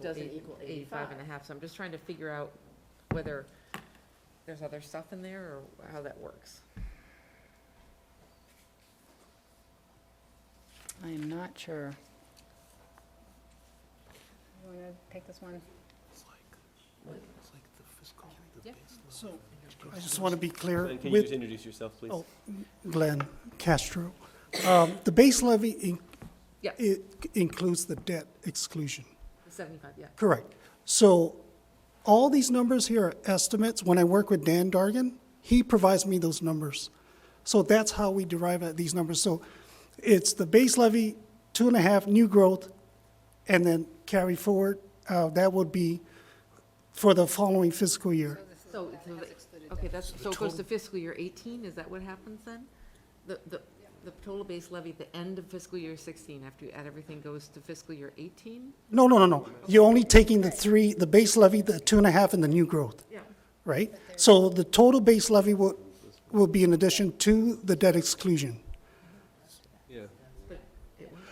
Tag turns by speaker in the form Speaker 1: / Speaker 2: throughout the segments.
Speaker 1: doesn't
Speaker 2: eight-
Speaker 1: equal
Speaker 2: Eighty-five and a
Speaker 1: 85.
Speaker 2: half, so I'm just trying to figure out whether there's other stuff in there or how that works.
Speaker 3: I am not sure.
Speaker 4: You wanna take this one?
Speaker 5: It's like, it's like the fiscal, the
Speaker 2: Yeah.
Speaker 5: baseline.
Speaker 6: So, I just want to be clear
Speaker 7: Glenn, can you just
Speaker 6: with
Speaker 7: introduce yourself, please?
Speaker 6: Oh. Glenn Castro. Um, The base levy in-
Speaker 2: Yeah.
Speaker 6: it includes the debt exclusion.
Speaker 2: Seventy-five, yeah.
Speaker 6: Correct. So all these numbers here are estimates. When I work with Dan Dargan, he provides me those numbers. So that's how we derive at these numbers. So it's the base levy, two and a half, new growth, and then carry forward. Uh, that would be for the following fiscal year.
Speaker 2: So, so the- okay, that's, so it goes to fiscal year eighteen, is that what happens then? The, the, the total base levy at the end of fiscal year sixteen, after you add everything, goes to fiscal year eighteen?
Speaker 6: No, no, no, no. You're only taking the three, the base levy, the two and a half, and the new growth,
Speaker 2: Yeah.
Speaker 6: right? So the total base levy will, will be in addition to the debt exclusion.
Speaker 7: Yeah.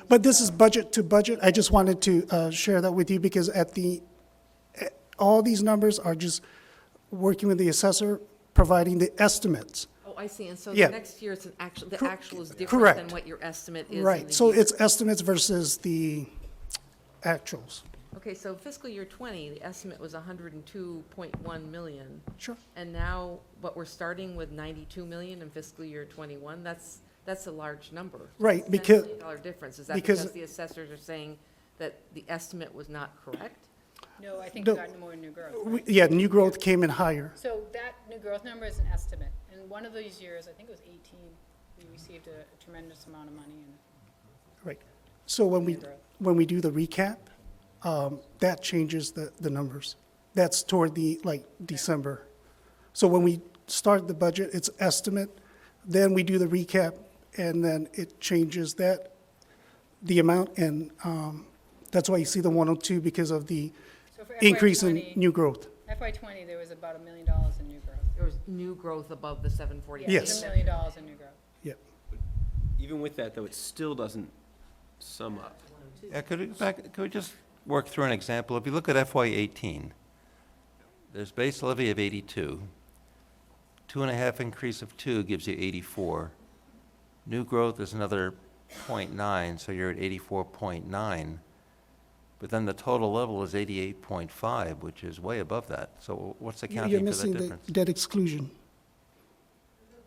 Speaker 6: But this is budget to budget. I just wanted to uh, share that with you because at the, eh, all these numbers are just working with the assessor, providing the estimates.
Speaker 2: Oh, I see, and so
Speaker 6: Yeah.
Speaker 2: the next year, it's an actual, the
Speaker 6: Cor-
Speaker 2: actual is different than
Speaker 6: correct.
Speaker 2: what your estimate is in
Speaker 6: Right,
Speaker 2: the
Speaker 6: so
Speaker 2: year.
Speaker 6: it's estimates versus the actuals.
Speaker 2: Okay, so fiscal year twenty, the estimate was hundred and two point one million,
Speaker 6: Sure.
Speaker 2: and now, but we're starting with ninety-two million in fiscal year twenty-one, that's, that's a large number.
Speaker 6: Right,
Speaker 2: It's a $10
Speaker 6: because-
Speaker 2: million Dollar difference, is that
Speaker 6: because-
Speaker 2: because the assessors are saying that the estimate was not correct?
Speaker 4: No, I think
Speaker 6: No.
Speaker 4: we got more new growth.
Speaker 6: We-
Speaker 4: right?
Speaker 6: Yeah, new growth came in higher.
Speaker 4: So that new growth number is an estimate, and one of those years, I think it was eighteen, we received a tremendous amount of money and
Speaker 6: Right. So when we,
Speaker 4: Yeah, right.
Speaker 6: when we do the recap, um, that changes the, the numbers. That's toward the, like, December. So when we start the budget, it's estimate, then we do the recap, and then it changes that, the amount, and, um, that's why you see the 102 because of the
Speaker 4: So for
Speaker 6: increase in
Speaker 4: FY20
Speaker 6: new growth.
Speaker 4: FY twenty, there was about a million dollars in new growth.
Speaker 2: There was new growth above the seven forty-eight.
Speaker 4: Yeah, there's
Speaker 6: Yes.
Speaker 4: A million dollars in new growth.
Speaker 6: Yep.
Speaker 7: Even with that, though, it still doesn't sum up.
Speaker 8: Yeah, could we, back, could we just work through an example? If you look at FY eighteen, there's base levy of eighty-two. Two and a half increase of two gives you eighty-four. New growth is another point nine, so you're at eighty-four point nine. But then the total level is eighty-eight point five, which is way above that. So what's
Speaker 6: You're
Speaker 8: accounting for that
Speaker 6: missing the
Speaker 8: difference?
Speaker 6: debt exclusion.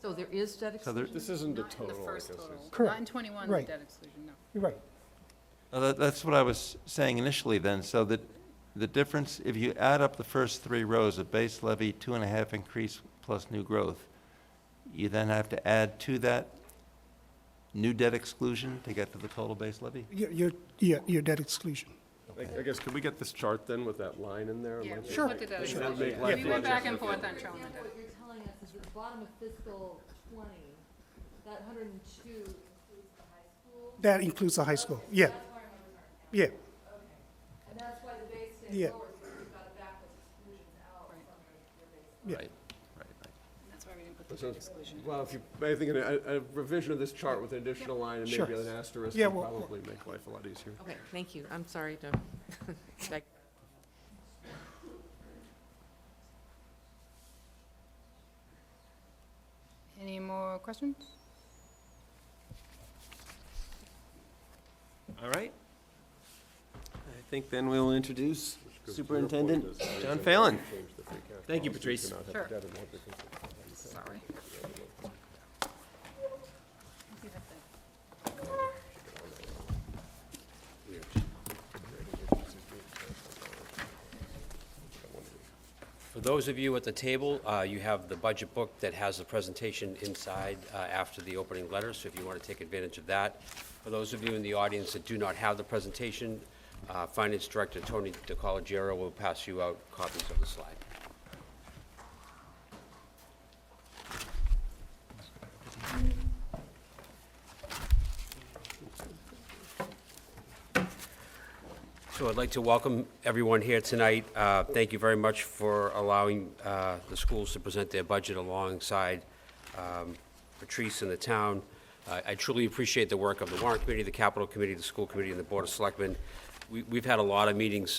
Speaker 2: So there is debt
Speaker 8: So there-
Speaker 2: exclusion?
Speaker 7: This isn't
Speaker 4: Not in the first total. Not
Speaker 6: Correct.
Speaker 4: in twenty-one, the
Speaker 6: Right.
Speaker 4: debt exclusion, no.
Speaker 6: You're right.
Speaker 8: Uh, that- That's what I was saying initially then, so that the difference, if you add up the first three rows of base levy, two and a half increase plus new growth, you then have to add to that new debt exclusion to get to the total base levy?
Speaker 6: Your, your, yeah, your debt exclusion.
Speaker 9: I I guess, could we get this chart then with that line in there? It
Speaker 4: Yeah,
Speaker 9: might
Speaker 4: we
Speaker 9: be-
Speaker 6: Sure.
Speaker 4: looked at that
Speaker 9: it
Speaker 4: as
Speaker 9: might
Speaker 4: well.
Speaker 9: make
Speaker 6: Yeah.
Speaker 9: life
Speaker 4: We went
Speaker 9: easier.
Speaker 4: back and forth on
Speaker 1: example,
Speaker 4: showing the debt.
Speaker 1: what you're telling us is at the bottom of fiscal twenty, that hundred and two includes the high school.
Speaker 6: That includes the high school, yeah,
Speaker 1: That's why our numbers aren't accurate.
Speaker 6: yeah.
Speaker 1: Okay. And that's why the base
Speaker 6: Yeah.
Speaker 1: stays lower, because we've got to back those exclusions out from your your base.
Speaker 6: Yeah.
Speaker 8: Right, right, right.
Speaker 4: That's why we didn't put the
Speaker 9: So
Speaker 4: debt
Speaker 9: it's-
Speaker 4: exclusion.
Speaker 9: Well, if you, I think a a revision of this chart with an additional line and
Speaker 6: Sure.
Speaker 9: maybe an asterisk
Speaker 6: Yeah,
Speaker 9: would
Speaker 6: we'll- we'll-
Speaker 9: probably make life a lot easier.
Speaker 2: Okay, thank you, I'm sorry to, back-
Speaker 4: Any more questions?
Speaker 7: All right. I think then we'll introduce Superintendent John Phelan. Thank you, Patrice.
Speaker 4: Sure.
Speaker 2: sorry.
Speaker 4: You have to-
Speaker 10: For those of you at the table, uh, you have the budget book that has the presentation inside uh, after the opening letter, so if you want to take advantage of that. For those of you in the audience that do not have the presentation, uh, Finance Director Tony DeColigiero will pass you out copies of the slide. So I'd like to welcome everyone here tonight. Uh, Thank you very much for allowing uh, the schools to present their budget alongside um, Patrice and the town. I I truly appreciate the work of the warrant committee, the capital committee, the school committee, and the board of selectmen. We- We've had a lot of meetings